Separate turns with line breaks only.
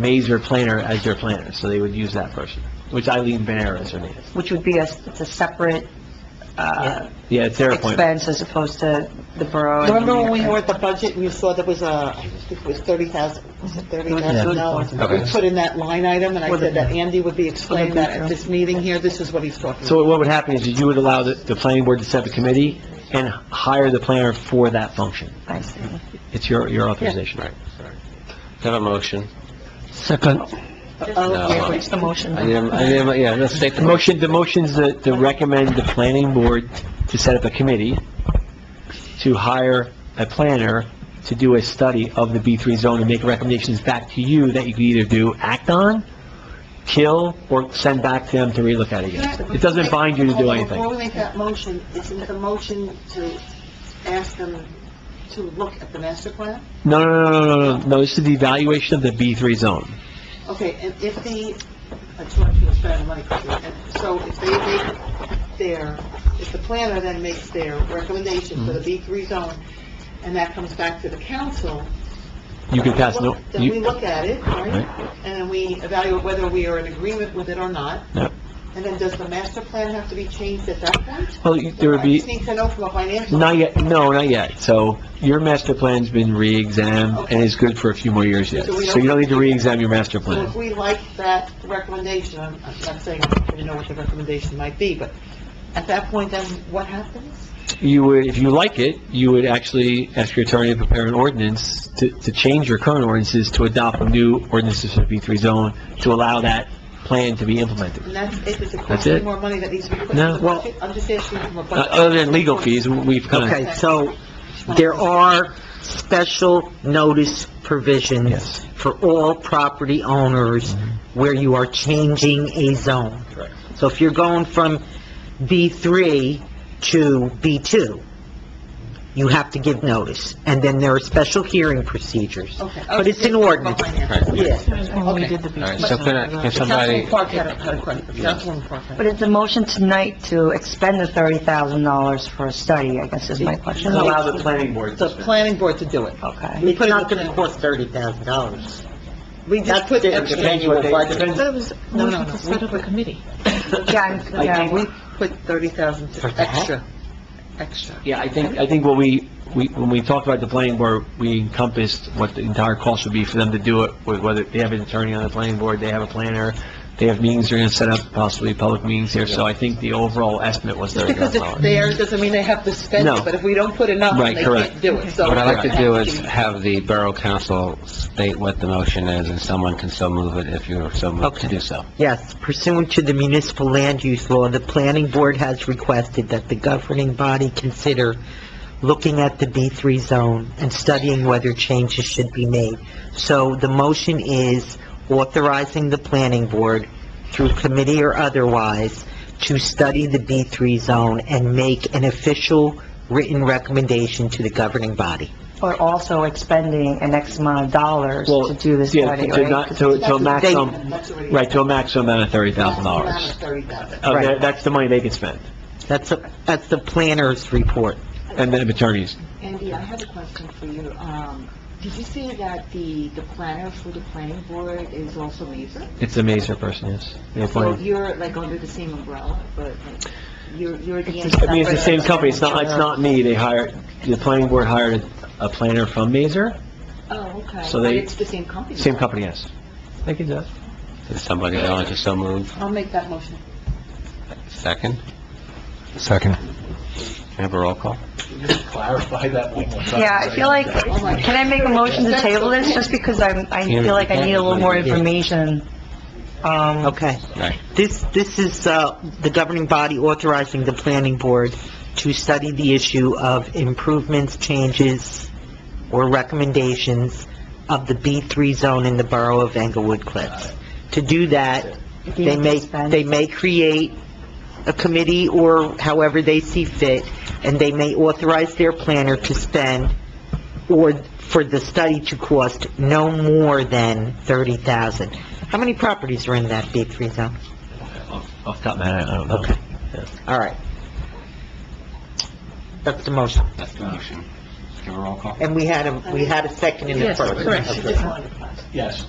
Mazer Planner as their planner, so they would use that person, which Eileen Banera is her name.
which would be a, it's a separate, uh,
Yeah, it's their appointment.
expense as opposed to the borough. and the
Remember when we
mayor.
were at the budget and you saw there was a, I think it was thirty thousand, was it thirty thousand dollars?
Yeah. Okay.
We put in that line item, and I said that Andy would be explaining that
future.
at this meeting here, this is what he's talking about.
So what would happen is you would allow the, the planning board to set the committee and hire the planner for that function.
I see.
It's your, your authorization.
Right. Have a motion.
Second.
Oh,
No.
yeah,
What's the motion?
I need a, I need a, yeah, let's take
The
the motion.
motion, the motion's to, to recommend the planning board to set up a committee to hire a planner to do a study of the B3 zone and make recommendations back to you that you could either do, act on, kill, or send back to them to relook at again. It doesn't bind you to do
Before
anything.
we make that motion, isn't the motion to ask them to look at the master plan?
No, no, no, no, no, no, no, this is the evaluation of the B3 zone.
Okay, and if the, I just want to spend money quickly, and so if they make their, if the planner then makes their recommendation for the B3 zone, and that comes back to the council,
You can pass no,
Then we
you,
look at it,
Right.
right? And then we evaluate whether we are in agreement with it or not.
Yep.
And then does the master plan have to be changed at that point?
well, you- there would
I
be,
just need to know from a financial...
Not yet, no, not yet. So your master plan's been re-examined and is good for a few more years yet.
So we don't-
So you don't need to re-examine your master
So
plan.
if we like that recommendation, I'm I'm not saying I don't know what the recommendation might be, but at that point, then what happens?
You would, if you like it, you would actually ask your attorney to prepare an ordinance to, to change your current ordinances to adopt new ordinances for the B3 zone to allow that plan to be implemented.
And that's, if it's a
That's
cost
it.
any more money that needs to be put
No.
into the budget, I'm just asking from a
Uh,
budget...
Other than legal fees, we've kind
Okay, so there are special notice
of,
provisions
yes. Mm-hmm.
for all property owners where you are changing a zone.
Correct.
So if you're going from B3 to B2, you have to give notice, and then there are special hearing procedures.
Okay.
But it's an ordinance. Yeah.
When we did the
All
beach.
right, so can I, can somebody,
Councilwoman Park had a had a question. Councilwoman Park. had a-
But is the motion tonight to expend the thirty thousand dollars for a study, I guess is my question?
Allow the planning board
The planning board to do it.
Okay.
It's not gonna cost thirty thousand dollars. We just put
It depends what they- depends-
No, no, no. We put-
Yeah, I'm- yeah, we,
We put 30,000 to extra, extra.
Yeah, I think, I think what we, we, when we talked about the planning board, we encompassed what the entire cost would be for them to do it, with whether they have an attorney on the planning board, they have a planner, they have meetings they're gonna set up, possibly public meetings here, so I think the overall estimate was
Just
thirty
because
thousand
it's
dollars.
theirs doesn't mean they have to spend
No.
it, but if we don't put enough,
Right,
then they
correct.
can't do it, so...
what I'd like to do is have the Borough Council state what the motion is, and someone can so move it if you're so moved to do so.
Yes, pursuant to the municipal land use law, the planning board has requested that the governing body consider looking at the B3 zone and studying whether changes should be made. So the motion is authorizing the planning board, through committee or otherwise, to study the B3 zone and make an official written recommendation to the governing body.
we're also expending an X amount of dollars
Well,
to do this
Yeah,
study,
to
right?
not, to, to a maximum,
That's already-
right, to a maximum amount of thirty
that's
thousand
not
dollars.
30,000.
Uh, that-
Right.
that's the money they can spend,
That's, a- that's the planner's report.
and then attorneys.
Andy, I have a question for you. Um, did you say that the, the planner for the planning board is also Mazer?
It's a Mazer person, yes. The
So
planner.
you're like under the same umbrella, but like, you're, you're the...
I mean, it's the same company, it's not, it's not me, they hired, the planning board hired a planner from Mazer,
Oh, okay.
So
But
they-
it's the same company?
same company, yes. Thank you, Jeff.
Is somebody willing to so move?
I'll make that motion.
Second?
Second.
Can I have a roll call?
clarify that one more time.
Yeah, I feel like, can I make a motion to table this, just because I'm, I feel like I need a little more information, um,
Okay.
Right.
This, this is, uh, the governing body authorizing the planning board to study the issue of improvements, changes, or recommendations of the B3 zone in the borough of Englewood Cliffs. To do that, they may, they may create a committee or however they see fit, and they may authorize their planner to spend or for the study to cost no more than 30,000. How many properties are in that B3 zone?
Off the top of my head, I don't know.
Okay. All right. That's the motion.
That's the motion. Give a roll call.
And we had a, we had a second in the first.
Correct.
Yes.